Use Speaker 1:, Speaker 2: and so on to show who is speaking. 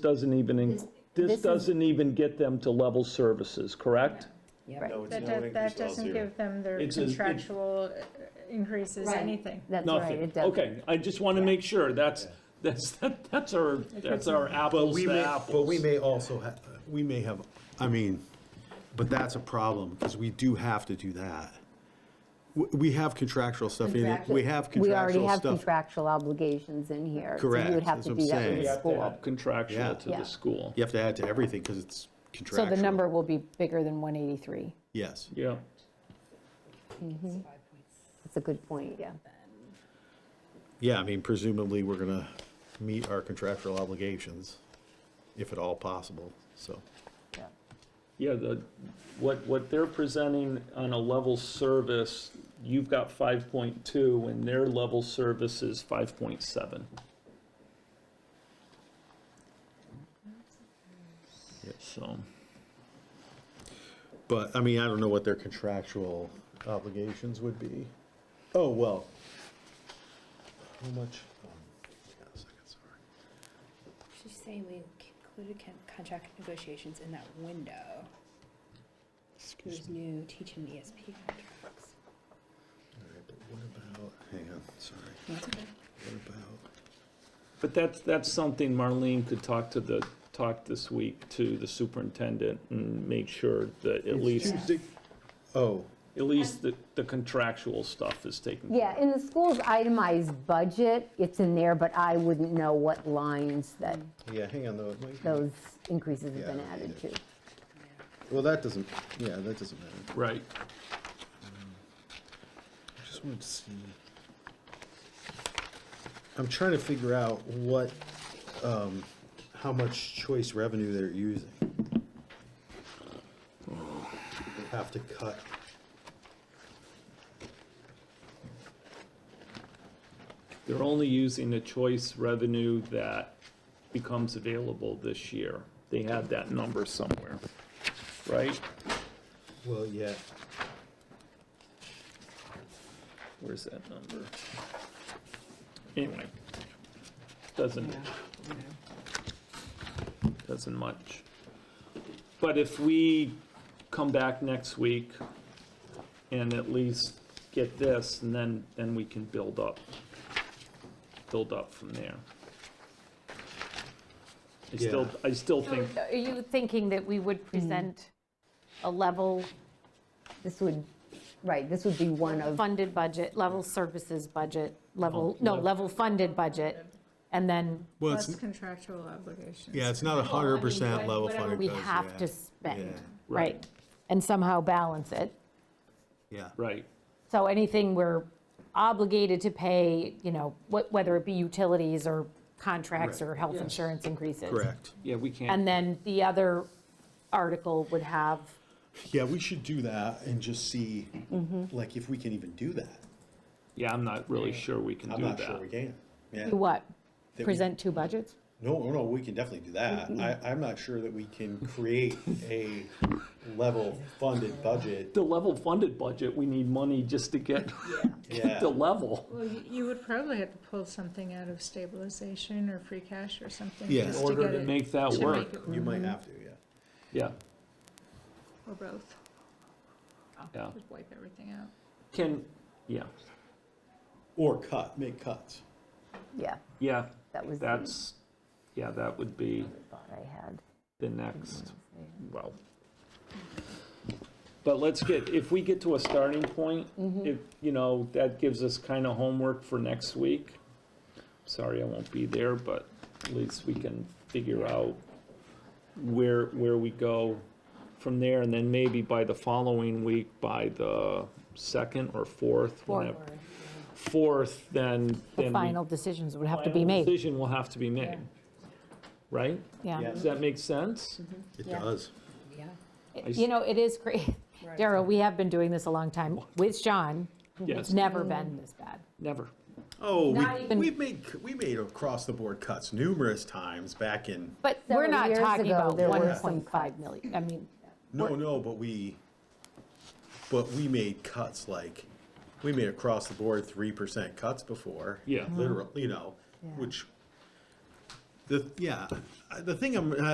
Speaker 1: doesn't even,
Speaker 2: this
Speaker 1: this
Speaker 2: is-
Speaker 1: doesn't even get them to level services, correct?
Speaker 3: No, it's
Speaker 4: That,
Speaker 3: no
Speaker 4: does- that
Speaker 3: increase all
Speaker 4: doesn't
Speaker 3: zero.
Speaker 4: give them their
Speaker 1: It's a- it-
Speaker 4: contractual uh, increases,
Speaker 2: Right.
Speaker 4: anything.
Speaker 2: That's right.
Speaker 1: Nothing.
Speaker 2: it does-
Speaker 1: Okay, I just want to make sure, that's, that's, that's our, that's our apples
Speaker 3: We
Speaker 1: to
Speaker 3: may,
Speaker 1: apples.
Speaker 3: but we may also have, we may have, I mean, but that's a problem, because we do have to do that. We, we have contractual stuff in it, we have
Speaker 2: We already
Speaker 3: contractual
Speaker 2: have
Speaker 3: stuff.
Speaker 2: contractual obligations in here. so You
Speaker 3: Correct,
Speaker 2: would have
Speaker 3: that's
Speaker 2: to
Speaker 3: what I'm
Speaker 2: do that
Speaker 3: saying.
Speaker 2: with
Speaker 3: You
Speaker 2: the
Speaker 3: have
Speaker 2: school.
Speaker 1: Contractual
Speaker 3: Yeah.
Speaker 1: to the
Speaker 2: Yeah.
Speaker 1: school.
Speaker 3: You have to add to everything, because it's
Speaker 5: So
Speaker 3: contractual.
Speaker 5: the number will be bigger than 183.
Speaker 3: Yes.
Speaker 1: Yeah,
Speaker 2: That's a good point, yeah.
Speaker 3: Yeah, I mean, presumably, we're gonna meet our contractual obligations, if at all possible, so.
Speaker 1: yeah, the, what, what they're presenting on a level service, you've got 5.2, and their level service is 5.7. So,
Speaker 3: But, I mean, I don't know what their contractual obligations would be. Oh, well. How much? um, hang on a second, sorry.
Speaker 6: She's saying we included con- contract negotiations in that window. There's new teaching ESP contracts.
Speaker 3: All right, but What about, hang on, sorry,
Speaker 6: That's okay.
Speaker 3: what about,
Speaker 1: but that's, that's something Marlene could talk to the, talk this week to the superintendent and make sure that at least,
Speaker 3: Tuesday, oh,
Speaker 1: at least the the contractual stuff is taken care of.
Speaker 2: Yeah, in the school's itemized budget, it's in there, but I wouldn't know what lines that
Speaker 6: Mm-hmm.
Speaker 3: yeah, hang on, though, it might be,
Speaker 2: those increases have been
Speaker 3: Yeah,
Speaker 2: added to.
Speaker 3: yeah. well, that doesn't, yeah, that doesn't matter.
Speaker 1: Right.
Speaker 3: I just wanted to see. I'm trying to figure out what, um, how much choice revenue they're using. They Have to cut.
Speaker 1: They're only using the choice revenue that becomes available this year. They had that number somewhere, right?
Speaker 3: Well, yeah,
Speaker 1: Where's that number? Anyway, doesn't, doesn't much. But if we come back next week and at least get this, and then, then we can build up, build up from there. I still,
Speaker 3: Yeah.
Speaker 1: I still think,
Speaker 5: Are you thinking that we would present a level
Speaker 2: This would, right, this would be one of,
Speaker 5: funded budget, level services budget, level,
Speaker 1: No,
Speaker 5: no,
Speaker 1: no.
Speaker 5: level funded budget, and then
Speaker 3: well,
Speaker 4: That's
Speaker 3: it's,
Speaker 4: contractual obligations.
Speaker 3: yeah, it's not a hundred percent level funded.
Speaker 5: we
Speaker 3: budget,
Speaker 5: have to
Speaker 3: yeah.
Speaker 5: spend,
Speaker 3: Yeah.
Speaker 5: right? And somehow balance it.
Speaker 3: Yeah.
Speaker 1: right,
Speaker 5: So anything we're obligated to pay, you know, wh- whether it be utilities or contracts
Speaker 3: Right.
Speaker 5: or health
Speaker 1: Yes.
Speaker 5: insurance increases.
Speaker 3: Correct.
Speaker 1: yeah, we can't.
Speaker 5: And then the other article would have,
Speaker 3: Yeah, we should do that and just see,
Speaker 5: Mm-hmm.
Speaker 3: like, if we can even do that.
Speaker 1: Yeah, I'm not really sure we can
Speaker 3: I'm
Speaker 1: do
Speaker 3: not sure
Speaker 1: that.
Speaker 3: we can. Yeah.
Speaker 5: do what?
Speaker 3: we-
Speaker 5: Present two budgets?
Speaker 3: No, no, we can definitely do that. I, I'm not sure that we can create a level funded budget.
Speaker 1: The level funded budget, we need money just to get,
Speaker 3: Yeah.
Speaker 1: get the level.
Speaker 4: Well, you you would probably have to pull something out of stabilization or free cash or something.
Speaker 3: Yeah.
Speaker 4: just
Speaker 1: In order
Speaker 4: get
Speaker 1: to
Speaker 4: it-
Speaker 1: make that
Speaker 4: to
Speaker 1: work,
Speaker 4: make it
Speaker 3: You
Speaker 4: work,
Speaker 3: might have to, yeah.
Speaker 1: yeah,
Speaker 4: Or both,
Speaker 1: yeah.
Speaker 4: just wipe everything out.
Speaker 1: Can, yeah,
Speaker 3: Or cut, make cuts.
Speaker 2: yeah,
Speaker 1: yeah,
Speaker 2: that was the
Speaker 1: that's, yeah, that would be
Speaker 2: thought I had.
Speaker 1: the next, well. But let's get, if we get to a starting point, if, you know, that gives us kind of homework for next week. Sorry, I won't be there, but at least we can figure out where, where we go from there. And then maybe by the following week, by the second or fourth, whenever- fourth, then, then
Speaker 5: The
Speaker 1: we-
Speaker 5: final decisions would have to be
Speaker 1: final
Speaker 5: made,
Speaker 1: Decision will have to be made, right?
Speaker 5: yeah.
Speaker 1: Does that make sense?
Speaker 3: It does.
Speaker 6: Yeah.
Speaker 5: You know, it is great. Daryl, we have been doing this a long time with John.
Speaker 1: Yes,
Speaker 5: It's Mm-hmm. never been this bad.
Speaker 1: never.
Speaker 3: Oh,
Speaker 5: Not
Speaker 3: we,
Speaker 5: even-
Speaker 3: we've made, we made across the board cuts numerous times back in,
Speaker 5: But we're
Speaker 2: Several
Speaker 5: not
Speaker 2: years
Speaker 5: talking
Speaker 2: ago,
Speaker 5: about
Speaker 2: there were some
Speaker 5: 1.5 million, I mean,
Speaker 3: no, no, but we, but we made cuts like, we made across the board three percent cuts before.
Speaker 1: Yeah.
Speaker 3: Literal, you know, which The, yeah, I- the thing I'm,